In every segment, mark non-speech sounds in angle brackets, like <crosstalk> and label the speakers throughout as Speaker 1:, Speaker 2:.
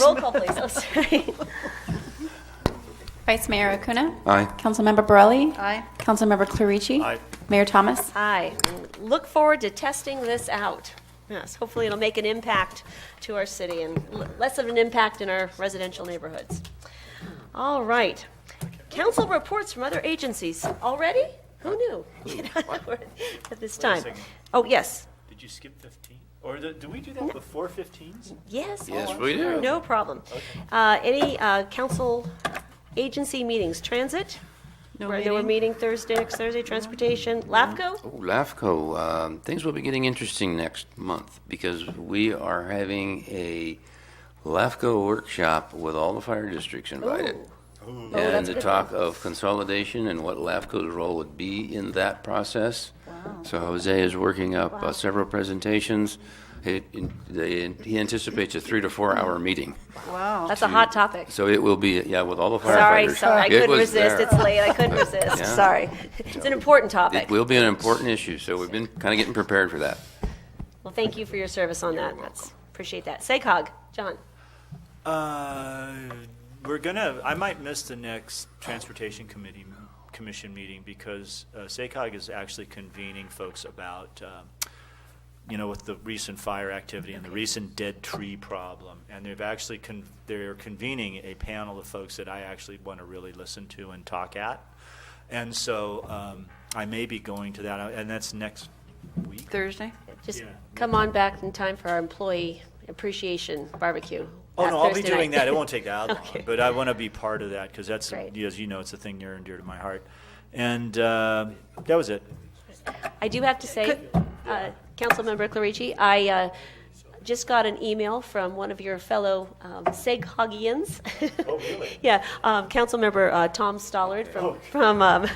Speaker 1: Roll call, please. Oh, <laughs> sorry.
Speaker 2: Vice Mayor Acuna.
Speaker 3: Aye.
Speaker 2: Councilmember Borelli.
Speaker 1: Aye.
Speaker 2: Councilmember Clarici.
Speaker 4: Aye.
Speaker 2: Mayor Thomas.
Speaker 1: Hi. Look forward to testing this out. Yes, hopefully it'll make an impact to our city and l- less of an impact in our residential neighborhoods. All right. Council reports from other agencies. Already? Who knew? <laughs> You know, we're At this time.
Speaker 4: second.
Speaker 1: Oh, yes.
Speaker 4: Did you skip 15? Or do, do we do that before 15s?
Speaker 1: Yes.
Speaker 3: Yes,
Speaker 1: always.
Speaker 3: we do.
Speaker 1: No problem. Uh, Any uh, council agency meetings? Transit?
Speaker 2: No
Speaker 1: Right, They were meeting Mm-hmm. Thursday, next Thursday, transportation. LAFCO?
Speaker 3: Oh, LAFCO, um, things will be getting interesting next month because we are having a LAFCO workshop with all the fire districts invited. And
Speaker 1: Oh, that's
Speaker 3: to
Speaker 1: good.
Speaker 3: talk of consolidation and what LAFCO's role would be in that process. So Jose is working up uh, several presentations. It- in- they- He anticipates a three to four hour meeting.
Speaker 1: That's a hot topic.
Speaker 3: So it will be, yeah, with all the
Speaker 1: Sorry,
Speaker 3: firefighters.
Speaker 1: sorry, I
Speaker 3: It
Speaker 1: couldn't
Speaker 3: was
Speaker 1: resist.
Speaker 3: there.
Speaker 1: It's late, I couldn't resist,
Speaker 3: <laughs> Yeah.
Speaker 1: sorry. It's an important topic.
Speaker 3: It will be an important issue, so we've been kind of getting prepared for that.
Speaker 1: Well, thank you for your service on that. That's, appreciate that. SECOG, John.
Speaker 4: Uh, we're gonna, I might miss the next Transportation Committee, Commission meeting because uh, SACOG is actually convening folks about, um, you know, with the recent fire activity and the recent dead tree problem. And they've actually, con- they're convening a panel of folks that I actually want to really listen to and talk at. And so um, I may be going to that, and that's next week.
Speaker 2: Thursday.
Speaker 1: Just
Speaker 4: Yeah.
Speaker 1: come on back in time for our employee appreciation barbecue.
Speaker 4: Oh,
Speaker 1: that
Speaker 4: no, I'll be
Speaker 1: Thursday
Speaker 4: doing
Speaker 1: night. <laughs>
Speaker 4: that. It
Speaker 5: <laughs>
Speaker 4: won't take that long,
Speaker 1: Okay.
Speaker 4: but I want to be part of that because that's,
Speaker 1: Great.
Speaker 4: as you know, it's a thing near and dear to my heart. And uh, that was it.
Speaker 1: I do have to say, uh, Councilmember Clarici, I uh, just got an email from one of your fellow um, Seghogians.
Speaker 4: Oh, really?
Speaker 1: <laughs>
Speaker 4: Oh,
Speaker 1: Yeah, um, Councilmember uh, Tom Stollard from, from
Speaker 4: <laughs>
Speaker 1: um,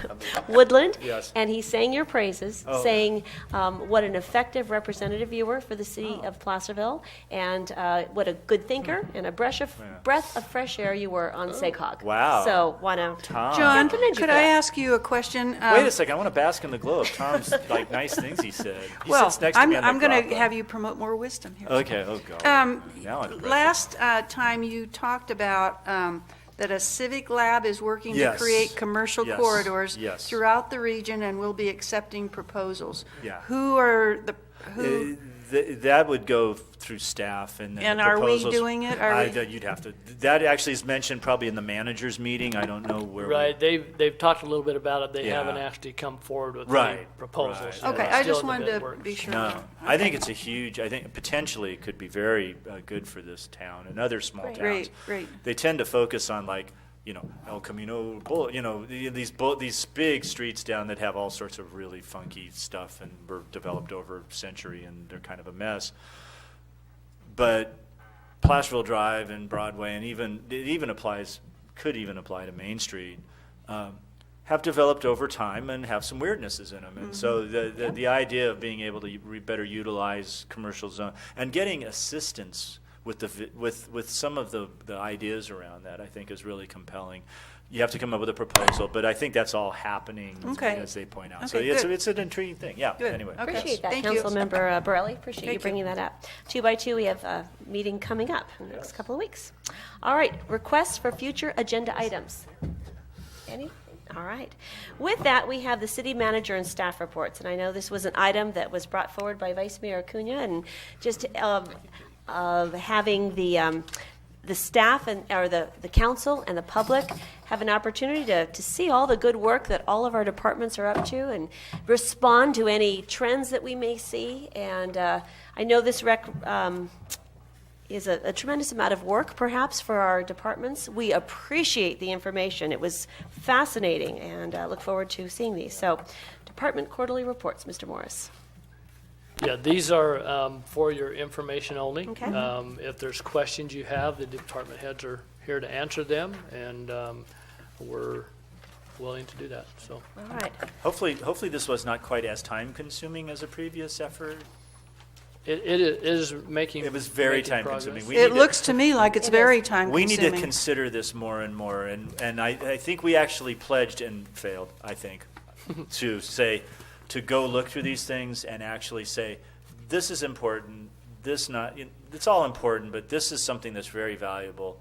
Speaker 1: Woodland.
Speaker 4: Yes.
Speaker 1: And he sang your praises,
Speaker 4: Oh.
Speaker 1: saying um, what an effective representative you were for the city
Speaker 4: Oh.
Speaker 1: of Placerville, and uh, what a good thinker and a breath of, breath of fresh air you were on Seghog.
Speaker 4: Oh. Wow.
Speaker 1: So, wanna,
Speaker 4: Tom.
Speaker 5: John,
Speaker 1: Recommend you
Speaker 5: could
Speaker 1: for
Speaker 5: I
Speaker 1: that.
Speaker 5: ask you a question?
Speaker 4: Wait
Speaker 5: Um,
Speaker 4: a second. I want to bask in the glow of Tom's like nice things he said. He
Speaker 5: Well,
Speaker 4: sits next
Speaker 5: I'm,
Speaker 4: to me on
Speaker 5: I'm
Speaker 4: the
Speaker 5: going to
Speaker 4: drop-in.
Speaker 5: have you promote more wisdom here.
Speaker 4: Okay. Oh God.
Speaker 5: Um,
Speaker 4: now I'm impressed.
Speaker 5: Last uh, time you talked about um, that a civic lab is working to
Speaker 4: Yes.
Speaker 5: create commercial
Speaker 4: Yes.
Speaker 5: corridors
Speaker 4: Yes.
Speaker 5: throughout the region and will be accepting proposals.
Speaker 4: Yeah.
Speaker 5: Who are the, who,
Speaker 4: Uh, th- that would go through staff and then
Speaker 5: And
Speaker 4: the
Speaker 5: are we
Speaker 4: proposals-
Speaker 5: doing it? Are
Speaker 4: I,
Speaker 5: we-
Speaker 4: that you'd have to. That actually is mentioned probably in the managers meeting. I don't know where. we-
Speaker 6: Right, they've, they've talked a little bit about it, they
Speaker 4: Yeah.
Speaker 6: haven't actually come forward with any
Speaker 4: Right, right.
Speaker 6: proposals. so
Speaker 5: okay,
Speaker 6: it's
Speaker 5: I
Speaker 6: still
Speaker 5: just
Speaker 6: in the
Speaker 5: wanted to
Speaker 6: mid-works.
Speaker 5: be sure.
Speaker 4: No, I think it's a huge. I think potentially it could be very uh, good for this town and other small towns.
Speaker 5: Great, great.
Speaker 4: They tend to focus on like you know El Camino, Bull- you know the- these bull- these big streets down that have all sorts of really funky stuff and were developed over a century and they're kind of a mess. But Placerville Drive and Broadway, and even it even applies could even apply to Main Street, um, have developed over time and have some weirdnesses in them. And so
Speaker 5: Mm-hmm.
Speaker 4: the, the the idea of being able to re- better utilize commercial zone and getting assistance with the vi- with with some of the the ideas around that, I think, is really compelling. You have to come up with a proposal, but I think that's all happening as-
Speaker 5: Okay.
Speaker 4: as they point out. so
Speaker 5: Okay,
Speaker 4: it's,
Speaker 5: good.
Speaker 4: it's an intriguing thing. Yeah.
Speaker 5: Good.
Speaker 4: Anyway.
Speaker 5: Okay.
Speaker 4: yes.
Speaker 1: Appreciate that,
Speaker 5: Thank you.
Speaker 1: Councilmember uh, Borelli. Appreciate you
Speaker 5: Thank you.
Speaker 1: bringing that up. Two by two, we have a meeting coming up in the next couple of weeks. All right, requests for future agenda items. Any? All right. With that, we have the city manager and staff reports. And I know this was an item that was brought forward by Vice Mayor Acuna and just um, of having the, um, the staff and, or the, the council and the public have an opportunity to, to see all the good work that all of our departments are up to and respond to any trends that we may see. And uh, I know this rec, um, is a, a tremendous amount of work, perhaps, for our departments. We appreciate the information. It was fascinating, and uh, look forward to seeing these. So, department quarterly reports, Mr. Morris.
Speaker 6: Yeah, these are um, for your information only.
Speaker 1: Okay.
Speaker 6: Um, If there's questions you have, the department heads are here to answer them, and um, we're willing to do that, so.
Speaker 1: All right.
Speaker 4: Hopefully, hopefully this was not quite as time-consuming as a previous effort.
Speaker 6: It, it is making.
Speaker 4: It was very
Speaker 6: making progress.
Speaker 4: time-consuming. We need
Speaker 5: It
Speaker 4: to-
Speaker 5: looks to
Speaker 4: <laughs>
Speaker 5: me like it's very time
Speaker 4: We need to
Speaker 5: consuming.
Speaker 4: consider this more and more, and, and I, I think we actually pledged and failed, I think, to say, to go look through these things and actually say, this is important, this not, it's all important, but this is something that's very valuable